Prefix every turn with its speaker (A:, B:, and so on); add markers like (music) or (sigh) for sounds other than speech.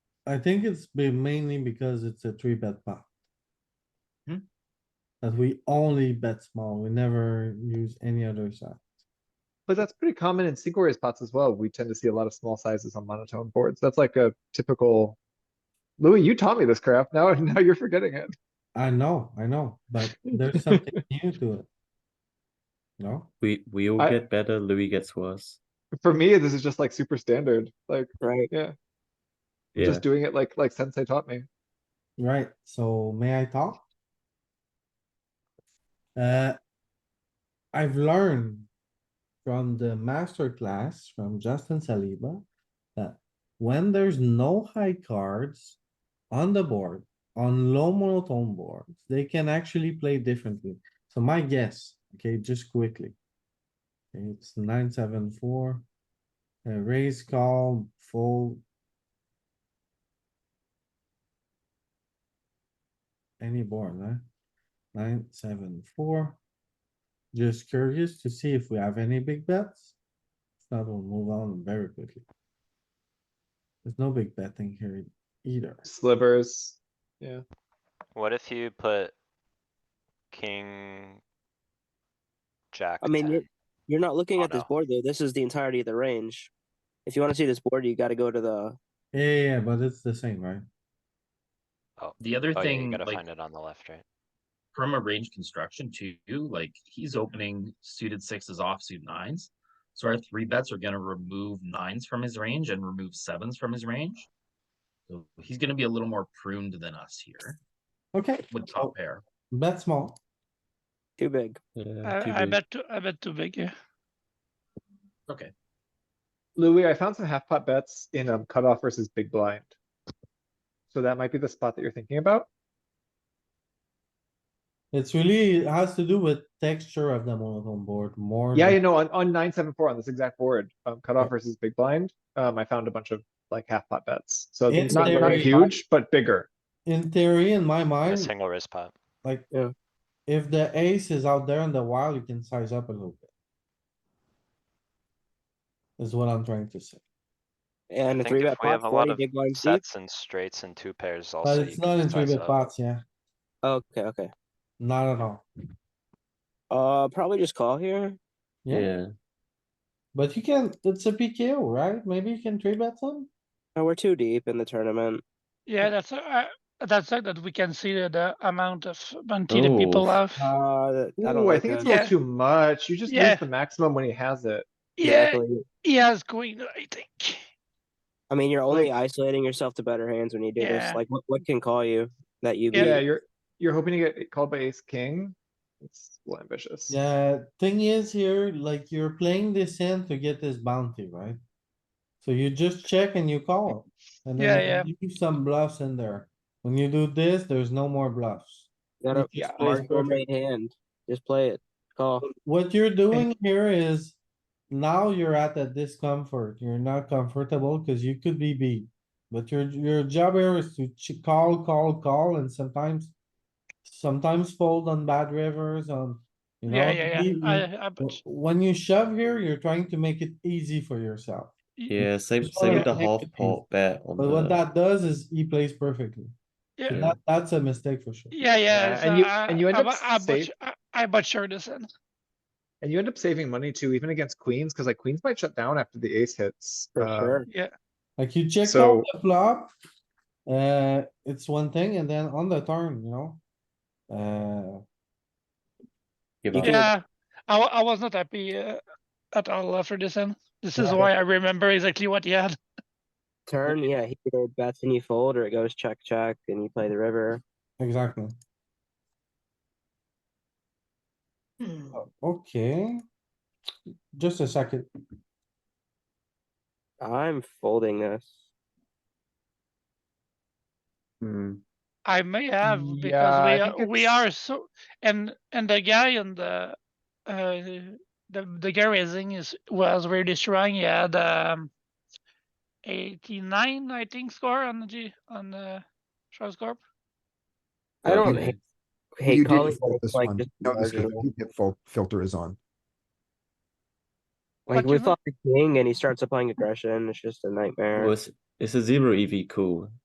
A: I think it's been mainly because it's a three bet pot.
B: Hmm.
A: That we only bet small, we never use any other side.
B: But that's pretty common in single raise pots as well. We tend to see a lot of small sizes on monotone boards. That's like a typical. Louis, you taught me this crap. Now, (laughs) now you're forgetting it.
A: I know, I know, but there's something new to it. No,
C: We we all
B: I-
C: get better, Louis gets worse.
B: For me, this is just like super standard, like,
D: right?
B: yeah,
C: Yeah.
B: just doing it like, like sensei taught me.
A: right, so may I talk? Uh. I've learned from the master class from Justin Saliba. That when there's no high cards on the board, on low monotone boards, they can actually play differently. So my guess, okay, just quickly. It's nine, seven, four. Uh, raise, call, fold. Any board, huh? Nine, seven, four. Just curious to see if we have any big bets. If Not we'll move on very quickly. There's no big betting here e-, either.
B: Slivers,
E: What if you put king? Jack
D: I mean,
E: ten?
D: you're, you're not looking
E: Oh,
D: at this
E: no.
D: board though. This is the entirety of the range. If you want to see this board, you got to go to the.
A: Yeah, yeah, yeah, but it's the same, right?
E: Oh,
F: The other
E: oh yeah,
F: thing,
E: you gotta
F: like
E: find it on the left, right?
F: from a range construction too, like he's opening suited sixes off suit nines. So our three bets are gonna remove nines from his range and remove sevens from his range. So he's gonna be a little more pruned than us here
A: Okay,
F: with
A: Oh.
F: top pair.
A: bet small.
D: Too big.
C: Yeah, too
G: I, I
C: big.
G: bet too, I bet too big, yeah.
F: Okay,
B: Louis, I found some half pot bets in um cutoff versus big blind. So that might be the spot that you're thinking about.
A: It's really, it has to do with texture of the monotone board more.
B: Yeah,
A: than-
B: you know, on, on nine, seven, four on this exact board, um, cutoff versus big blind, um, I found a bunch of like half pot bets. So
A: It's
B: not, not
A: very-
B: huge, but bigger.
A: In theory, in my
E: A
A: mind,
E: single wrist pot.
A: like.
D: Yeah.
A: If the ace is out there in the wild, you can size up a little bit. Is what I'm trying to say.
D: And
E: I
D: a
E: think
D: three
E: if
D: bet
E: we have
D: pot,
E: a lot
D: 40
E: of
D: big blind deep.
E: Sets and straights and two pairs
A: But
E: also.
A: it's
E: you
A: not
E: can
A: in three
E: size
A: bit
E: up.
A: pots, yeah.
D: Okay, okay.
A: Not at all.
D: Uh, probably just call here.
C: yeah.
A: Yeah,
C: (laughs)
A: but you can, it's a PKO, right? Maybe you can three bet some?
D: No, we're too deep in the tournament.
G: Yeah, that's, uh, that's like that we can see the, the amount of bounty the
C: Oh.
G: people have.
D: Uh, that- I don't
B: Ooh, I
D: like
B: think it's a
D: that.
B: little
G: Yeah.
B: too much. You just
G: Yeah.
B: use the maximum when he has it.
G: Yeah,
D: Exactly.
G: he has queen, I think.
D: I mean, you're only isolating yourself to better hands when you do
G: Yeah.
D: this. Like, what, what can call you that you
G: Yeah.
B: Yeah,
D: beat?
B: you're, you're hoping to get called by ace king. It's a little ambitious.
A: Yeah, thing is here, like you're playing this hand to get this bounty, right? So you just check and you call. And
G: Yeah,
A: then you leave some bluffs in there. When you do this, there's no more bluffs.
D: Got a
A: Yeah,
D: hard
A: it's
D: four made hand. Just play it. Call.
A: What you're doing here is now you're at a discomfort. You're not comfortable because you could be beat. But your, your job here is to ch- call, call, call and sometimes, sometimes fold on bad rivers on, you know.
G: Yeah, yeah, yeah.
A: you- you-
G: I, I bet.
A: Wh- When you shove here, you're trying to make it easy for yourself.
C: Yeah, same
A: Just
C: same
A: wanna
C: with the
A: make
C: half
A: it easy.
C: pot bet on
A: But what
C: the
A: that does is he plays perfectly.
G: Yeah.
A: That, that's a mistake for sure.
G: Yeah, yeah.
B: and you-
G: so I-
B: and you end
G: I
B: up
G: bu- I
B: safe.
G: butch- I- I butchered this in.
B: And you end up saving money too, even against queens, because like queens might shut down after the ace hits.
D: For
B: Um,
D: sure.
A: Like you check
B: So-
A: out the flop, uh, it's one thing, and then on the turn, you know? Uh,
C: give up.
G: Yeah, I, wa- I was not happy uh, at all after this in. This is
A: Yeah.
G: why I remember exactly what he had.
D: Turn, yeah, he either bets and you fold, or it goes check, check, and you play the river.
A: exactly. O- Oh, Okay. Just a second.
D: I'm folding this.
C: Hmm.
G: I may have
B: Yeah, I
G: because we
B: think
G: are, we
B: it's-
G: are so and and the guy on the uh the the guy raising is was really strong. He had um eighty nine I think score on the G on the Strauss Corp.
D: I don't
C: Okay.
D: hate,
H: You
D: hate
H: didn't
D: calling.
H: fold
D: but
H: this
D: it's like
H: one.
D: just
H: No, this
D: marginal.
H: hit fil- filter is on.
D: Like
G: What
D: we
G: you mean?
D: fought the king and he starts applying aggression. It's just a nightmare.
C: Well, it's, it's a zero EV cool.